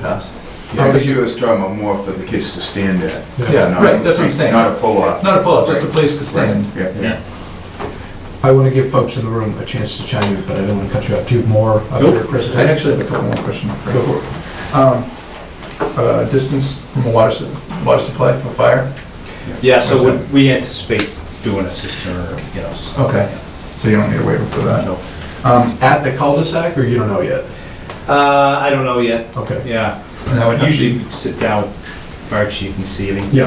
past. Yeah, because you was talking about more for the kids to stand at. Yeah, not- right, that's what I'm saying. Not a pull-off. Not a pull-up, just a place to stand. Right, Yeah, yeah. I want to give folks in the room a chance to chime in, but I don't want to cut you off. Do you have more of Nope. your I presentation? actually have a couple more questions. Go for it. Um, uh, Distance from a water, su- water supply for fire? Yeah, What's so we- we anticipate doing a cistern or, you know. s- Okay. So you don't need a waiver for that? No. Um, At the cul-de-sac, or you don't know yet? Uh, I don't know yet, Okay. yeah. and that would have to Usually be- we sit down, with fire chief and see, I mean, Yeah.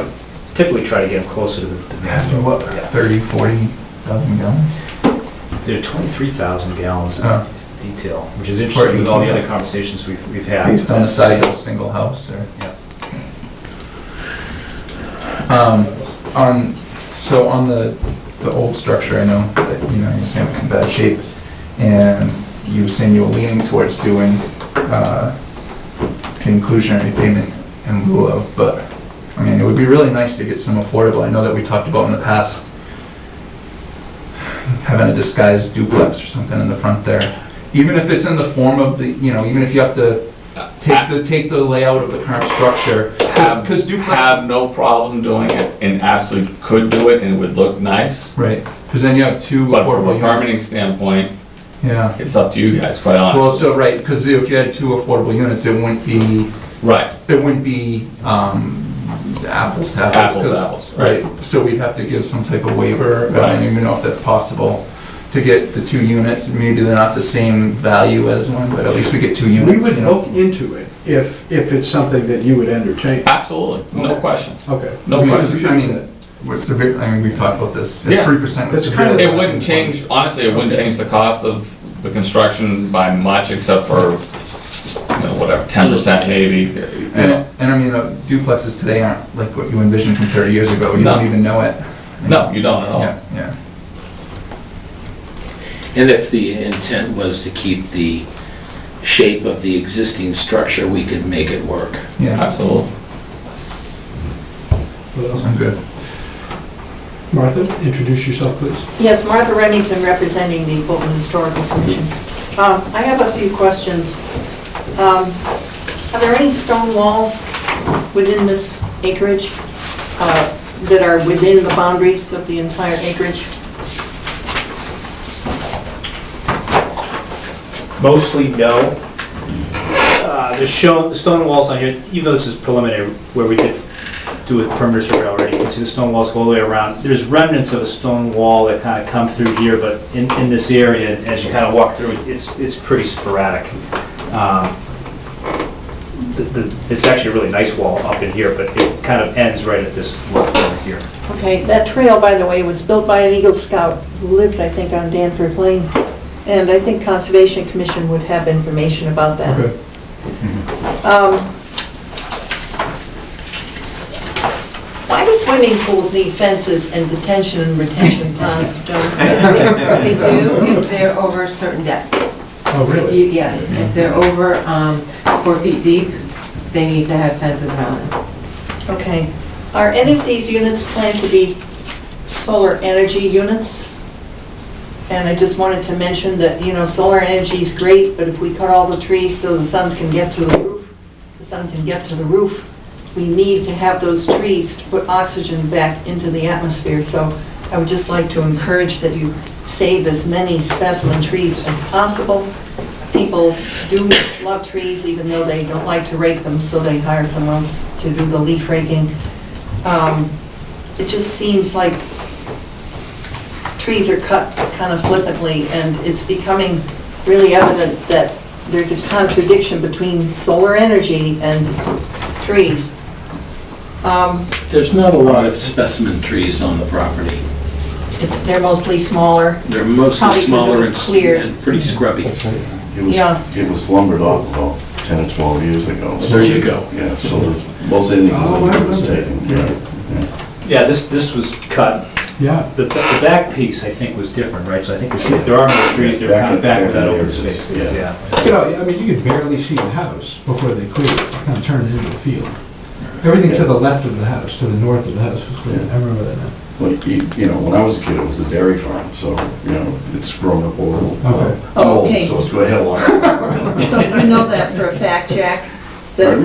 typically try to get them closer to the, they have to be, what, Yeah. 30, 40,000 gallons? they're twenty-three thousand gallons is Oh. is the detail, which is interesting with all the 18. other conversations we've, we've had. Based on the size of a single house or? Yeah. Um, on, so on the, the old structure, I know that, you know, you're saying it's in bad shape. And you were saying you were leaning towards doing, uh, the inclusionary payment in lieu of, but, I mean, it would be really nice to get some affordable. I know that we talked about in the past having a disguised duplex or something in the front there. Even if it's in the form of the, you know, even if you have to take the, take the layout of the current structure. Have- Because duplex, have no problem doing it and absolutely could do it and it would look nice. right, because then you have two But from affordable a permitting units. standpoint, Yeah, it's up to you guys, quite well, honestly. so, right, because if you had two affordable units, it wouldn't be, Right, it wouldn't be um, apples to apples. Apples to 'cause- apples, right. So we'd have to give some type of waiver, I Right. don't even know if that's possible, to get the two units, maybe they're not the same value as one, but at least we get two We units. would you know? look into it if, if it's something that you would entertain. absolutely, no Okay. question, Okay. no Because, question. I mean, we're severe, I mean, we've talked about this, Yeah. three percent was That's kind severe. of- It wouldn't change, honestly, it wouldn't Okay. change the cost of the construction by much except for, you know, whatever, ten percent maybe, you know. And, and I mean, uh, duplexes today aren't like what you envisioned from thirty years ago, you No. don't even know it. No, you don't at all. Yeah, yeah, And if the intent was to keep the shape of the existing structure, we could make it work. yeah, Absolutely. I'm good. Martha, introduce yourself, please. Yes, Martha Remington, representing the Bolton Historical Commission. Um, I have a few questions. Um, Are there any stone walls within this acreage uh, that are within the boundaries of the entire acreage? Mostly no. Uh, The show, the stone walls on here, even though this is preliminary, where we did do a perimeter survey already, you can see the stone walls go all the way around. There's remnants of a stone wall that kind of come through here, but in, in this area, as you kind of walk through, it, it's, it's pretty sporadic. Um, the- the- It's actually a really nice wall up in here, but it kind of ends right at this level over here. Okay, that trail, by the way, was built by an Eagle Scout who lived, I think, on Danforth Lane, and I think Conservation Commission would have information about that. Okay. Um, Why do swimming pools need fences and detention and retention ponds, John? They do if they're over a certain depth. Oh, If really? you- Yes, if they're over um, four feet deep, they need to have fences around them. Okay. Are any of these units planned to be solar energy units? And I just wanted to mention that, you know, solar energy is great, but if we cut all the trees so the sun can get to the roof, the sun can get to the roof, we need to have those trees to put oxygen back into the atmosphere. So I would just like to encourage that you save as many specimen trees as possible. People do love trees, even though they don't like to rake them, so they hire someone else to do the leaf raking. Um, It just seems like trees are cut kind of flippantly, and it's becoming really evident that there's a contradiction between solar energy and trees. Um, There's not a lot of specimen trees on the property. It's, they're mostly smaller, They're mostly Probably 'cause it smaller was and s- clear. and pretty scrubby. It was, Yeah. it was lumbered off about 10 or 12 years ago. There you go. Yeah, so there's, Uh, most anything Oh, I was remember. taken, yeah. Yeah, this, this was cut Yeah. The, the back piece, I think, was different, right? So I think the- there are no trees, they're Back kind of in- back back where that in the open areas, space is, yeah. yeah. You know, I mean, you could barely see the house before they cleared it, kind of turned it into a field. Everything to the left of the house, to the north of the house was cleared. I remember that now. Like, you you know, when I was a kid, it was a dairy farm, so, you know, it's grown up a little. Okay. I'm old, Okay. so it's going to have a lot. so you know that for a fact, Jack, that Pardon?